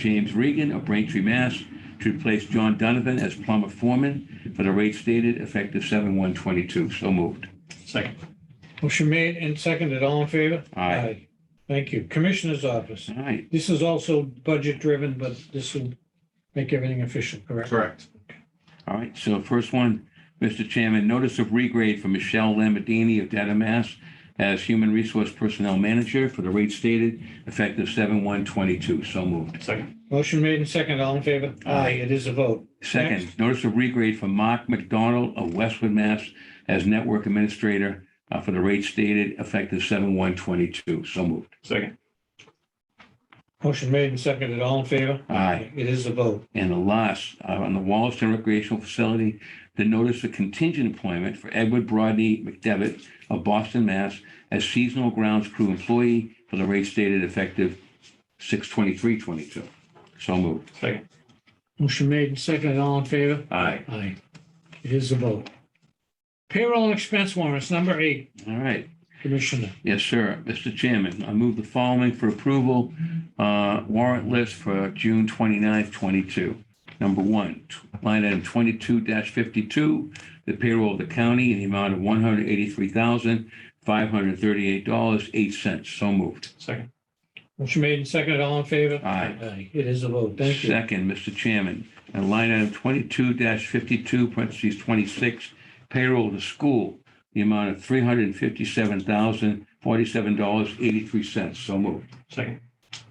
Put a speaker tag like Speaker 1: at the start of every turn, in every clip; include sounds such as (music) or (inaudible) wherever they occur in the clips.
Speaker 1: James Regan of Braintree, Mass. to replace John Donovan as plumber foreman for the rate stated effective 7/1/22. So moved.
Speaker 2: Second.
Speaker 3: Motion made and seconded. All in favor?
Speaker 1: Aye.
Speaker 3: Thank you. Commissioner's office.
Speaker 1: All right.
Speaker 3: This is also budget driven, but this will make everything efficient, correct?
Speaker 2: Correct.
Speaker 1: All right, so first one, Mr. Chairman, notice of regrade for Michelle Lamborghini of Dedham, Mass. as Human Resource Personnel Manager for the rate stated effective 7/1/22. So moved.
Speaker 2: Second.
Speaker 3: Motion made and seconded. All in favor? Aye, it is a vote.
Speaker 1: Second, notice of regrade for Mark McDonald of Westwood, Mass. as Network Administrator uh, for the rate stated effective 7/1/22. So moved.
Speaker 2: Second.
Speaker 3: Motion made and seconded. All in favor?
Speaker 1: Aye.
Speaker 3: It is a vote.
Speaker 1: And the last, uh, on the Wallaston Recreational Facility, the notice of contingent employment for Edward Brodney McDevitt of Boston, Mass. as seasonal grounds crew employee for the rate stated effective 6/23/22. So moved.
Speaker 2: Second.
Speaker 3: Motion made and seconded. All in favor?
Speaker 1: Aye.
Speaker 3: Aye. It is a vote. Payroll and expense warrants, number eight,
Speaker 1: All right.
Speaker 3: Commissioner.
Speaker 1: Yes, sir. Mr. Chairman, I move the following for approval. uh, Warrant list for June 29th, 22. Number one, t- line item 22-52, the payroll of the county in the amount of $183,538.08. So moved.
Speaker 2: Second.
Speaker 3: Motion made and seconded. All in favor?
Speaker 1: Aye.
Speaker 3: Aye, it is a vote. Thank you.
Speaker 1: Second, Mr. Chairman, and line item 22-52, parentheses 26, payroll to school, the amount of $357,047.83. So moved.
Speaker 2: Second.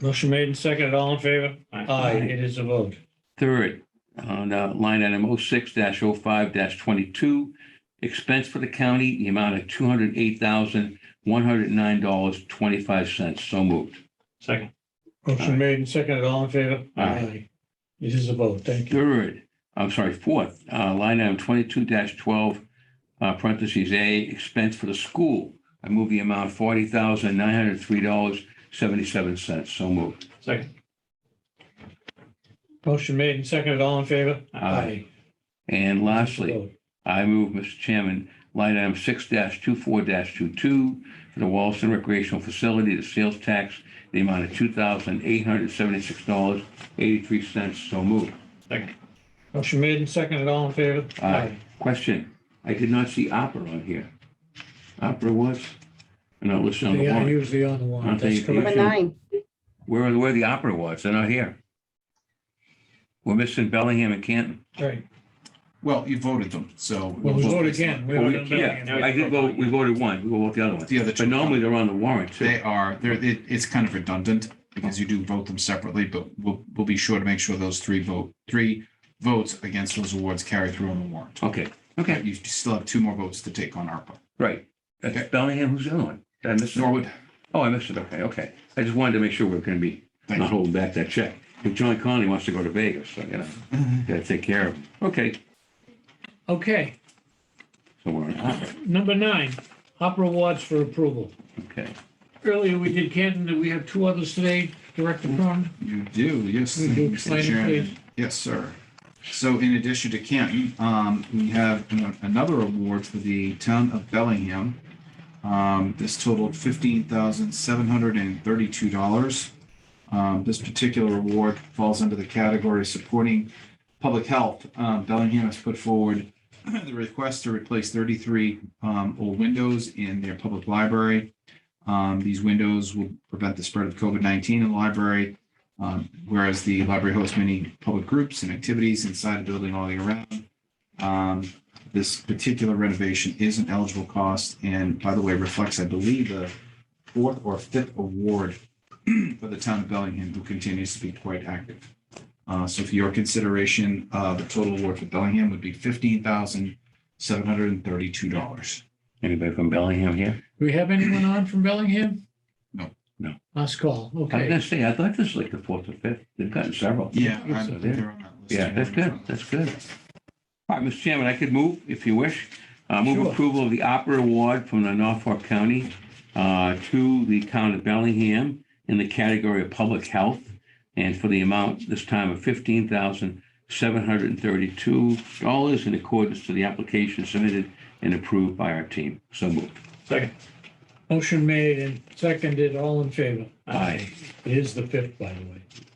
Speaker 3: Motion made and seconded. All in favor? Aye, it is a vote.
Speaker 1: Third, on uh, line item 06-05-22, expense for the county, the amount of $208,109.25. So moved.
Speaker 2: Second.
Speaker 1: Aye.
Speaker 3: Motion made and seconded, all in favor?
Speaker 1: Aye.
Speaker 3: It is a vote, thank you.
Speaker 1: Third, I'm sorry, fourth, uh, line item 22-12, uh, parentheses A, expense for the school. I move the amount $40,903.77. So moved.
Speaker 2: Second.
Speaker 3: Motion made and seconded, all in favor?
Speaker 1: Aye. And lastly, I move, Mr. Chairman, line item six 24 22 for the Wallaston Recreational Facility, the sales tax, the amount of two thousand eight hundred seventy-six dollars, eighty-three cents. So moved.
Speaker 2: Second.
Speaker 3: Motion made and seconded, all in favor?
Speaker 1: Aye. Question. I did not see opera on here. Opera was? No, listen on
Speaker 3: They
Speaker 1: the
Speaker 3: are
Speaker 1: warrant.
Speaker 3: usually on the warrant,
Speaker 1: Aren't
Speaker 3: that's
Speaker 1: they-
Speaker 3: correct.
Speaker 4: Number
Speaker 1: Sure.
Speaker 4: nine,
Speaker 1: Where, where the opera was? They're not here. We're missing Bellingham and Canton.
Speaker 3: Right,
Speaker 5: Well, you voted them, so.
Speaker 3: well, we vote again. We
Speaker 1: Well,
Speaker 3: haven't
Speaker 1: we-
Speaker 3: done that
Speaker 1: Yeah,
Speaker 3: yet.
Speaker 1: I did vote, we voted one. We will vote the other one.
Speaker 5: The other two.
Speaker 1: But normally they're on the warrant too.
Speaker 5: They are, they're, it, it's kind of redundant because you do vote them separately, but we'll, we'll be sure to make sure those three vote, three votes against those awards carry through on the warrant.
Speaker 1: Okay, okay,
Speaker 5: You still have two more votes to take on ARPA.
Speaker 1: right. That's
Speaker 5: Okay.
Speaker 1: Bellingham, who's the other one? Did I miss it?
Speaker 5: Norwood,
Speaker 1: Oh, I missed it. Okay, okay. I just wanted to make sure we we're going to be
Speaker 5: thank
Speaker 1: not
Speaker 5: you.
Speaker 1: holding back that check. If John Conley wants to go to Vegas, so, you know,
Speaker 5: Mm-hmm.
Speaker 1: gotta take care of him. Okay.
Speaker 3: Okay,
Speaker 1: So we're on opera.
Speaker 3: number nine, opera awards for approval.
Speaker 1: Okay.
Speaker 3: Earlier, we did Canton, and we have two others today, Director
Speaker 1: Mm.
Speaker 3: Cronin.
Speaker 5: You do, yes.
Speaker 3: Would you
Speaker 5: thank you,
Speaker 3: explain it,
Speaker 5: Mr. Chairman.
Speaker 3: please?
Speaker 5: Yes, sir. So in addition to Canton, um, we have an- another award for the town of Bellingham. Um, this totaled fifteen thousand seven hundred and thirty-two dollars. Um, this particular award falls under the category supporting public health. Um, Bellingham has put forward (clears throat) the request to replace thirty-three, um, old windows in their public library. Um, these windows will prevent the spread of COVID-19 in the library um, whereas the library hosts many public groups and activities inside the building all year round. Um, this particular renovation is an eligible cost and by the way, reflects, I believe, the fourth or fifth award (clears throat) for the town of Bellingham, who continues to be quite active. Uh, so for your consideration, uh, the total award for Bellingham would be fifteen thousand seven hundred and thirty-two dollars.
Speaker 1: Anybody from Bellingham here?
Speaker 3: Do we have anyone on from Bellingham?
Speaker 5: No.
Speaker 1: No.
Speaker 3: Last call,
Speaker 1: I was
Speaker 3: okay.
Speaker 1: gonna say, I thought this was like the fourth or fifth. They've gotten several.
Speaker 5: Yeah.
Speaker 1: Yes,
Speaker 5: I'm-
Speaker 1: sir.
Speaker 5: they're on that list.
Speaker 1: Yeah, that's good. That's good. All right, Mr. Chairman, I could move if you wish. Uh, move
Speaker 3: Sure.
Speaker 1: approval of the opera award from the Norfolk County uh, to the town of Bellingham in the category of public health and for the amount this time of fifteen thousand seven hundred and thirty-two dollars in accordance to the application submitted and approved by our team. So moved.
Speaker 2: Second.
Speaker 3: Motion made and seconded, all in favor?
Speaker 1: Aye.
Speaker 3: It is the fifth, by the way.